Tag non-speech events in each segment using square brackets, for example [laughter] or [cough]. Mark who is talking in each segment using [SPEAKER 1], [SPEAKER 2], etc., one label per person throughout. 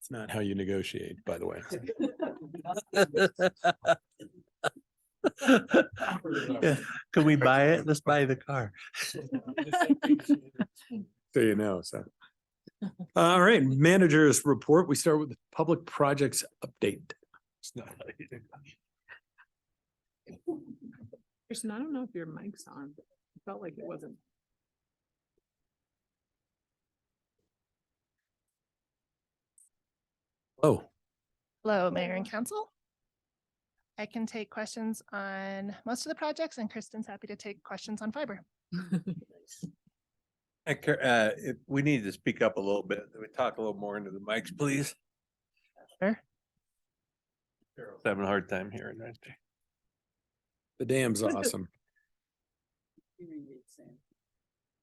[SPEAKER 1] It's not how you negotiate, by the way.
[SPEAKER 2] [laughs] Yeah, Could we buy it? Let's buy the car.
[SPEAKER 1] So you know, so. All right, managers report. We start with the public projects update. It's not how you do it.
[SPEAKER 3] Kristen, I don't know if your mic's on. It felt like it wasn't.
[SPEAKER 1] Oh,
[SPEAKER 4] Hello, Mayor and Council. I can take questions on most of the projects and Kristen's happy to take questions on fiber.
[SPEAKER 2] I cur- Uh, if we need to speak up a little bit, we talk a little more into the mics, please.
[SPEAKER 4] Sure.
[SPEAKER 2] Carol's Having a hard time hearing, aren't they?
[SPEAKER 1] the dam's awesome.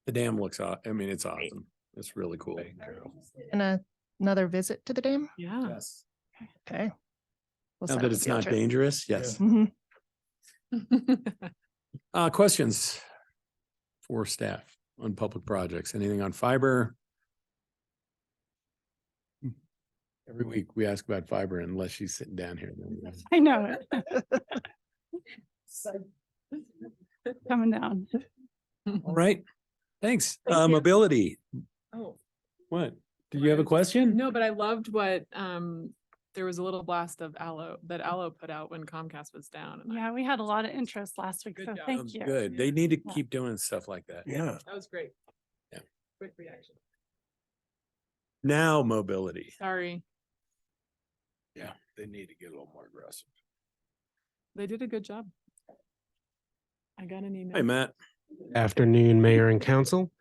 [SPEAKER 1] The dam looks, aw- I mean, it's awesome. It's really cool.
[SPEAKER 4] And a- another visit to the dam,
[SPEAKER 3] Yeah. [laughs]
[SPEAKER 1] Yes.
[SPEAKER 4] okay? We'll
[SPEAKER 1] Now
[SPEAKER 4] set
[SPEAKER 1] that
[SPEAKER 4] up a
[SPEAKER 1] it's
[SPEAKER 4] field
[SPEAKER 1] not
[SPEAKER 4] trip.
[SPEAKER 1] dangerous, yes.
[SPEAKER 4] Mhm.
[SPEAKER 1] Uh, questions for staff on public projects? Anything on fiber? Every week we ask about fiber unless she's sitting down here. then we ask.
[SPEAKER 5] I know it. Coming down. [laughs]
[SPEAKER 1] All right, thanks.
[SPEAKER 3] Thank
[SPEAKER 1] Uh,
[SPEAKER 3] you.
[SPEAKER 1] mobility,
[SPEAKER 3] Oh,
[SPEAKER 1] what? Do you have a question?
[SPEAKER 3] no, but I loved what, um, there was a little blast of Allo, that Allo put out when Comcast was down. and I-
[SPEAKER 5] Yeah, we had a lot of interest last week,
[SPEAKER 3] Good
[SPEAKER 5] so
[SPEAKER 3] job.
[SPEAKER 1] Um,
[SPEAKER 5] thank you.
[SPEAKER 1] Good. They need to
[SPEAKER 5] Yeah.
[SPEAKER 1] keep doing stuff like that.
[SPEAKER 2] Yeah.
[SPEAKER 3] That was great.
[SPEAKER 1] Yeah.
[SPEAKER 3] Quick reaction.
[SPEAKER 1] Now mobility.
[SPEAKER 3] Sorry.
[SPEAKER 2] Yeah, they need to get a little more aggressive.
[SPEAKER 3] They did a good job. I got an email.
[SPEAKER 1] Hey, Matt.
[SPEAKER 6] Afternoon, Mayor and Council.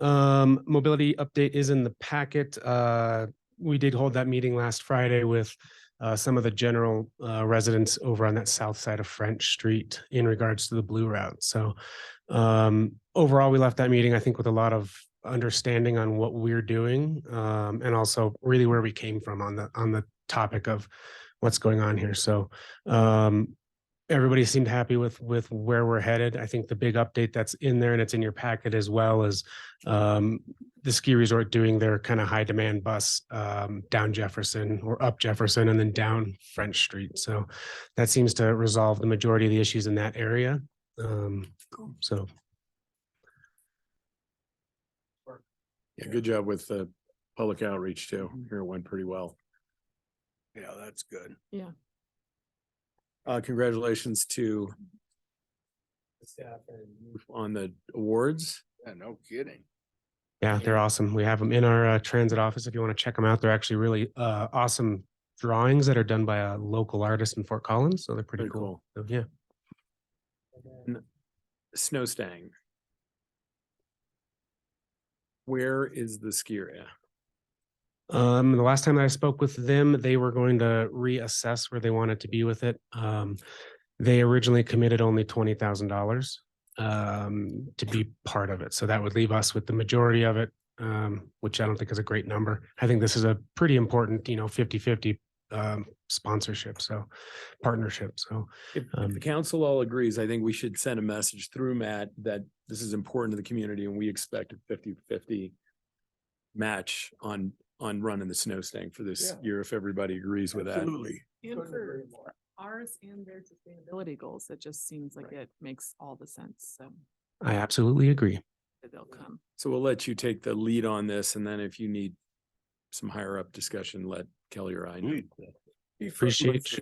[SPEAKER 6] Um, mobility update is in the packet. Uh, we did hold that meeting last Friday with uh, some of the general uh, residents over on that south side of French Street in regards to the blue route. So um, overall, we left that meeting, I think, with a lot of understanding on what we're doing um, and also really where we came from on the on the topic of what's going on here. So um, everybody seemed happy with with where we're headed. I think the big update that's in there and it's in your packet as well is um, the ski resort doing their kind of high demand bus um, down Jefferson or up Jefferson and then down French Street. So that seems to resolve the majority of the issues in that area. Um, so
[SPEAKER 1] Yeah, good job with the public outreach too. Here it went pretty well.
[SPEAKER 2] Yeah, that's good.
[SPEAKER 1] Uh, congratulations to on the awards.
[SPEAKER 2] Yeah, no kidding.
[SPEAKER 6] yeah, they're awesome. We have them in our uh, transit office. If you want to check them out, they're actually really uh, awesome drawings that are done by a local artist in Fort Collins. So they're pretty
[SPEAKER 1] Pretty
[SPEAKER 6] cool.
[SPEAKER 1] cool.
[SPEAKER 6] So, yeah.
[SPEAKER 1] Snow Stang. Where is the skier? at?
[SPEAKER 6] Um, the last time that I spoke with them, they were going to reassess where they wanted to be with it. Um, they originally committed only twenty thousand dollars um, to be part of it. So that would leave us with the majority of it, um, which I don't think is a great number. I think this is a pretty important, you know, 50-50 um, sponsorship, so partnership. So
[SPEAKER 1] If, if
[SPEAKER 6] Um,
[SPEAKER 1] the council all agrees, I think we should send a message through Matt that this is important to the community and we expect a 50-50 match on, on running the snow stank for this
[SPEAKER 2] Yeah.
[SPEAKER 1] year if everybody agrees with that.
[SPEAKER 3] And for ours and their sustainability goals, it just seems like it makes all the sense. So
[SPEAKER 6] I absolutely agree.
[SPEAKER 3] that they'll come.
[SPEAKER 1] So we'll let you take the lead on this and then if you need some higher up discussion, let Kelly or I know.
[SPEAKER 6] Appreciate. you-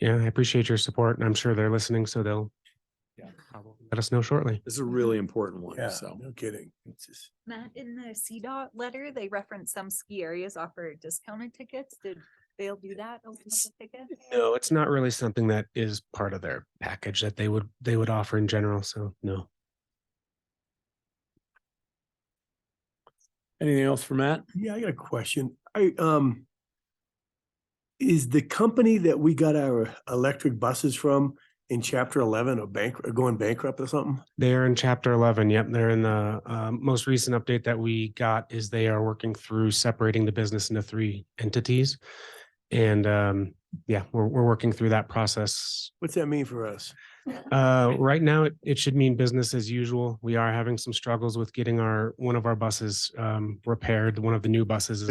[SPEAKER 6] Yeah, I appreciate your support, and I'm sure they're listening, so they'll
[SPEAKER 2] Yeah.
[SPEAKER 6] probably let us know shortly.
[SPEAKER 1] This is a really important one, so.
[SPEAKER 2] kidding.
[SPEAKER 7] Matt, in the CDOT letter, they reference some ski areas offer discounted tickets. Did they'll do that? open up the ticket?
[SPEAKER 6] No, it's not really something that is part of their package that they would, they would offer in general. So no.
[SPEAKER 1] Anything else for Matt?
[SPEAKER 8] Yeah, I got a question. I, um, is the company that we got our electric buses from in chapter eleven or bank, or going bankrupt or something?
[SPEAKER 6] They are in chapter 11. Yep. They're in the um, most recent update that we got is they are working through separating the business into three entities. And um, yeah, we're, we're working through that process.
[SPEAKER 8] What's that mean for us?
[SPEAKER 6] Uh, right now, it, it should mean business as usual. We are having some struggles with getting our, one of our buses um, repaired. One of the new buses is